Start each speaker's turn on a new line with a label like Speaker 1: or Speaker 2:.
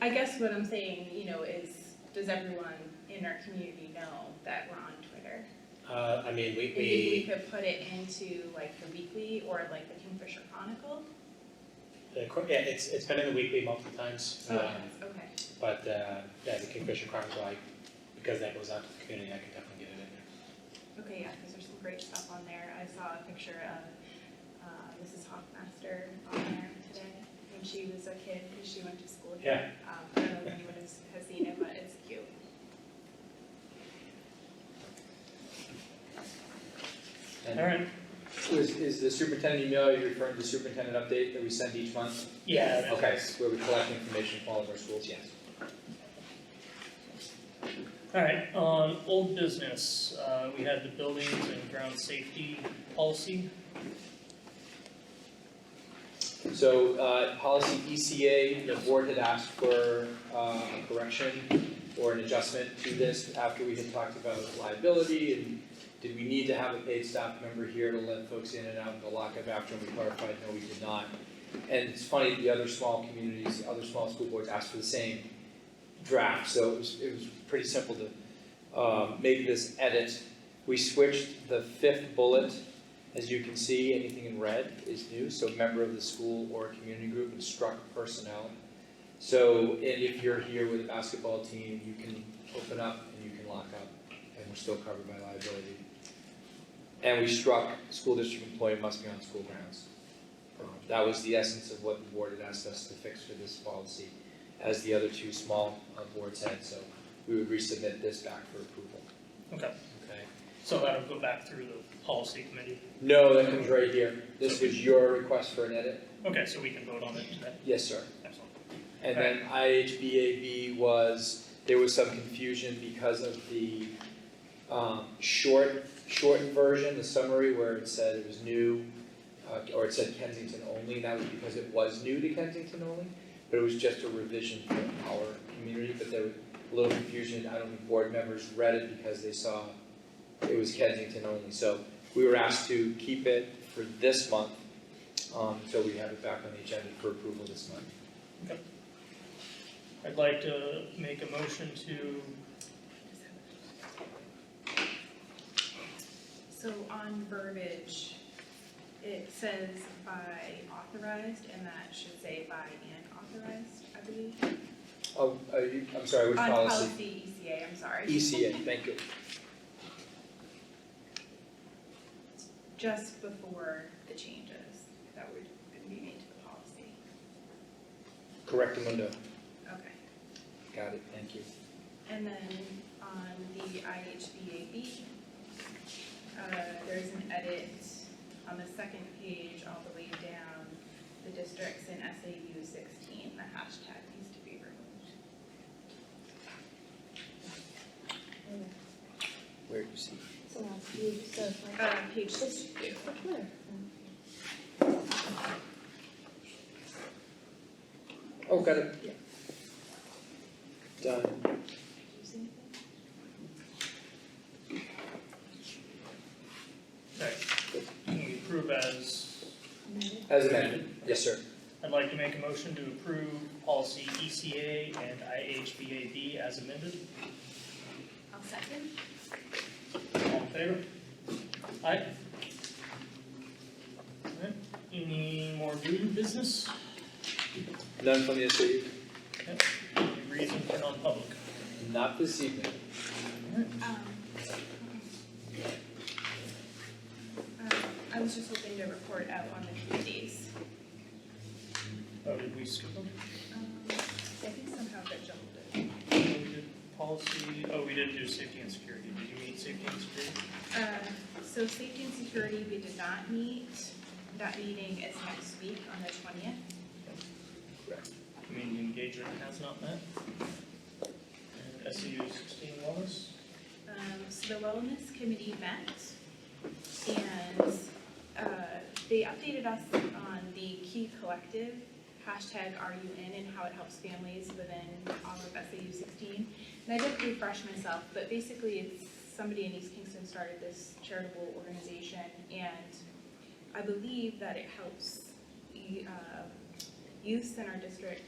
Speaker 1: I guess what I'm saying, you know, is, does everyone in our community know that we're on Twitter?
Speaker 2: Uh, I mean, we,
Speaker 1: Maybe
Speaker 2: we,
Speaker 1: we could put it into like the weekly or like the Kingfisher Chronicle?
Speaker 2: the cor- uh, yeah, it's, it's been in the weekly multiple times,
Speaker 1: Oh,
Speaker 2: um,
Speaker 1: yes, okay,
Speaker 2: but, uh, yeah, the Kingfisher Chronicle, I, because that goes out to the community, I can definitely get it in there.
Speaker 1: okay, yeah, because there's some great stuff on there. I saw a picture of uh, Mrs. Hoffmaster on there today when she was a kid, because she went to school here. Yeah. Um, I don't know if anyone has, has seen it, but it's cute.
Speaker 3: And
Speaker 2: All right,
Speaker 3: Is, is the superintendent email, you're referring to the superintendent update that we send each month?
Speaker 2: yeah, okay,
Speaker 3: Okay, where we collect information from all of our schools, yes.
Speaker 4: All right, on old business, uh, we had the buildings and ground safety policy.
Speaker 3: So, uh, policy ECA, the board had asked for, uh, a correction or an adjustment to this after we had talked about liability and did we need to have a paid staff member here to let folks in and out of the lockup after we clarified, no, we did not. And it's funny, the other small communities, other small school boards asked for the same draft, so it was, it was pretty simple to, uh, make this edit. We switched the fifth bullet as you can see, anything in red is new, so member of the school or community group and struck personnel. So, and if you're here with a basketball team, you can open up and you can lock up, and we're still covered by liability. And we struck, school district employee must be on school grounds. Um, That was the essence of what the board had asked us to fix for this policy, as the other two small uh, boards had, so we would resubmit this back for approval.
Speaker 4: Okay,
Speaker 3: Okay.
Speaker 4: so that'll go back through the policy committee.
Speaker 3: No, that comes right here, this was your request for an edit.
Speaker 4: Okay, so we can vote on it today.
Speaker 3: Yes, sir.
Speaker 4: Excellent.
Speaker 3: And then IHBAB was, there was some confusion because of the um short, shortened version, the summary where it said it was new, uh or it said Kensington only, and that was because it was new to Kensington only, but it was just a revision for our community, but there was a little confusion, I don't think board members read it because they saw it was Kensington only, so we were asked to keep it for this month, um so we have it back on the agenda for approval this month.
Speaker 4: I'd like to make a motion to,
Speaker 1: So on verbiage, it says by authorized, and that should say by and authorized, I believe.
Speaker 3: Oh, are you, I'm sorry, which
Speaker 1: On
Speaker 3: policy? E
Speaker 1: policy ECA, I'm sorry.
Speaker 3: ECA, thank you.
Speaker 1: Just before the changes that would be made to the policy.
Speaker 3: Correct window.
Speaker 1: Okay.
Speaker 3: Got it, thank you.
Speaker 1: And then on the IHBAB, uh, there's an edit on the second page all the way down, the districts in SAU sixteen, the hashtag needs to be removed.
Speaker 3: Where do you see?
Speaker 5: So that's you, so like.
Speaker 1: Uh, page
Speaker 5: It's, it's the Twitter.
Speaker 3: Oh, got it. Done.
Speaker 4: sorry, can we approve as,
Speaker 3: As amended, yes, sir.
Speaker 4: I'd like to make a motion to approve policy ECA and IHBAB as amended.
Speaker 1: I'll second.
Speaker 4: All in favor? Aye? Alright, any more new business?
Speaker 3: None from the SAU?
Speaker 4: Any reason for non-public?
Speaker 3: Not this evening.
Speaker 1: Um, um, I was just hoping to report out on the committees.
Speaker 4: Oh, did we skip them?
Speaker 1: Um, I think somehow got jumbled in.
Speaker 4: We did Policy, oh, we didn't do safety and security, did you meet safety and security?
Speaker 1: Uh, so safety and security, we did not meet. That meeting is next week on the twentieth.
Speaker 4: Community engagement has not met. And SEU sixteen wellness,
Speaker 1: Um, so the wellness committee met and, uh, they updated us on the key collective, hashtag are you in and how it helps families within all of SAU sixteen. And I did refresh myself, but basically it's somebody in East Kingston started this charitable organization and I believe that it helps, y- uh, youths in our district